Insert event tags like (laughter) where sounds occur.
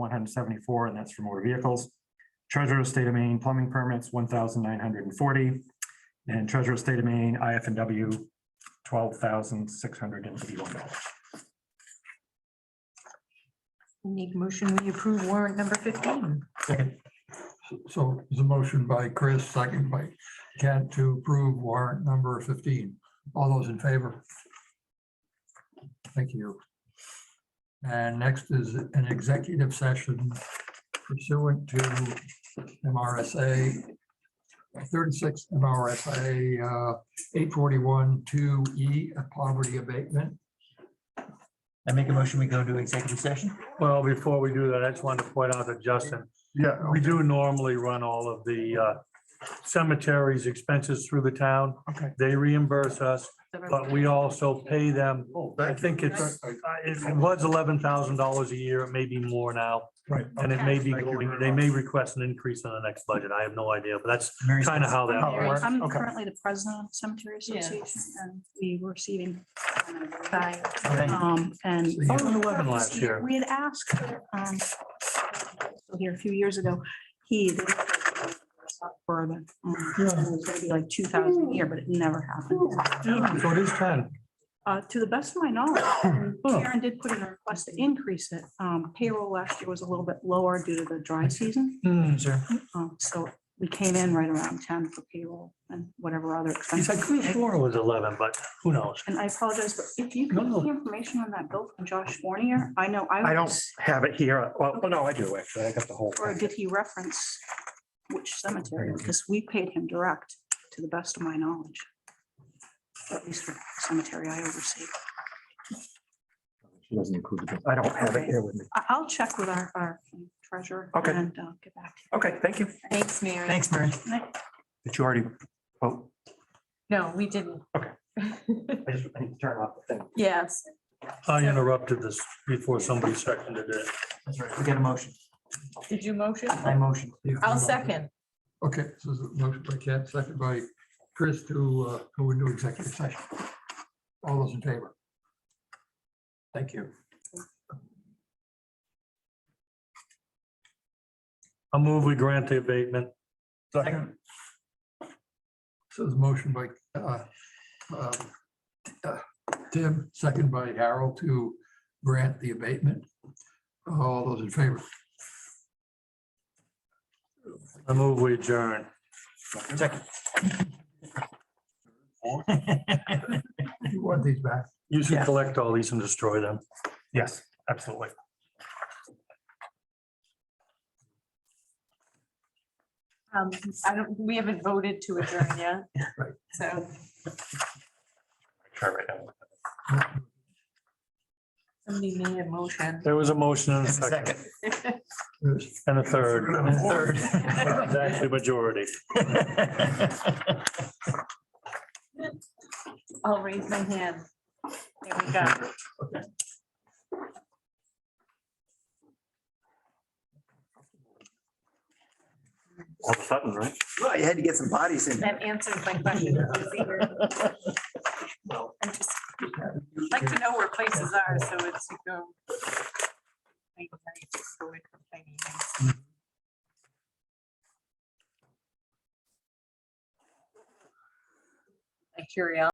one hundred seventy-four, and that's for motor vehicles. Treasurer of State of Maine plumbing permits, one thousand nine hundred and forty. And Treasurer of State of Maine, IF and W, twelve thousand six hundred and eighty-one dollars. Make motion, we approve warrant number fifteen. So there's a motion by Chris, second by Kent to approve warrant number fifteen. All those in favor? Thank you. And next is an executive session pursuant to MRSA thirty-six MRSA uh, eight forty-one two E poverty abatement. I make a motion, we go to executive session. Well, before we do that, I just wanted to point out to Justin, Yeah, we do normally run all of the uh, cemeteries expenses through the town. Okay. They reimburse us, but we also pay them. Oh, I think it's, uh, it was eleven thousand dollars a year. It may be more now. Right. And it may be Thank you going, very they much. may request an increase on the next budget. I have no idea, but that's Mary's- kind of how that How it works. works. I'm Okay. currently the president of the Cemetery Association and we were receiving. Bye. Thank you. Um, and. I was 11 last year. We had asked, um, here a few years ago, he for the, um, it was gonna be like two thousand a year, but it never happened. Yeah, So it is ten. Uh, to the best of my knowledge, Karen did put in a request to increase it. Um, payroll last year was a little bit lower due to the dry season. Hmm, Sir. Um, so we came in right around ten for payroll and whatever other He's like, expenses. who swore it was eleven, but who knows? And I apologize, but if you No, can no. get the information on that bill from Josh Warnier, I know I. I don't was- have it here. Well, oh, no, I do actually. I got the whole. Or did he reference which cemetery? Because we paid him direct, to the best of my knowledge. At least for the cemetery I oversee. She doesn't include it. I don't have it here with me. I, I'll check with our, our treasurer. Okay. And uh, get back to Okay, thank you. Thanks, Mary. Thanks, Mary. you. But you already, oh, No, we didn't. Okay. I just I need to turn off the thing. (laughs) Yes. I interrupted this before somebody seconded it. That's right. We got a motion. Did you motion? I motion. I'll second. Okay, so there's a motion by Ken, second by Chris to uh, go into executive session. All those in favor? Thank you. I'll move, we grant the abatement. Second. So there's a motion by uh, um, uh, Tim, second by Harold to grant the abatement. All those in favor? I move, we adjourn. Second. (laughs) You want these back? You should Yeah. collect all these and destroy them. Yes, absolutely. Um, I don't, we haven't voted to adjourn yet. Right. So Try right now. somebody made a motion. There was a motion and a second Second. Yes. and a third. And a (laughs) third. (laughs) It's (laughs) Actually, majority. I'll raise my hand. There we go. All of a sudden, right? Well, you had to get some bodies in. That answers my question. I just like to know where places are, so it's to go. I- I just go with my meetings. My curiosity.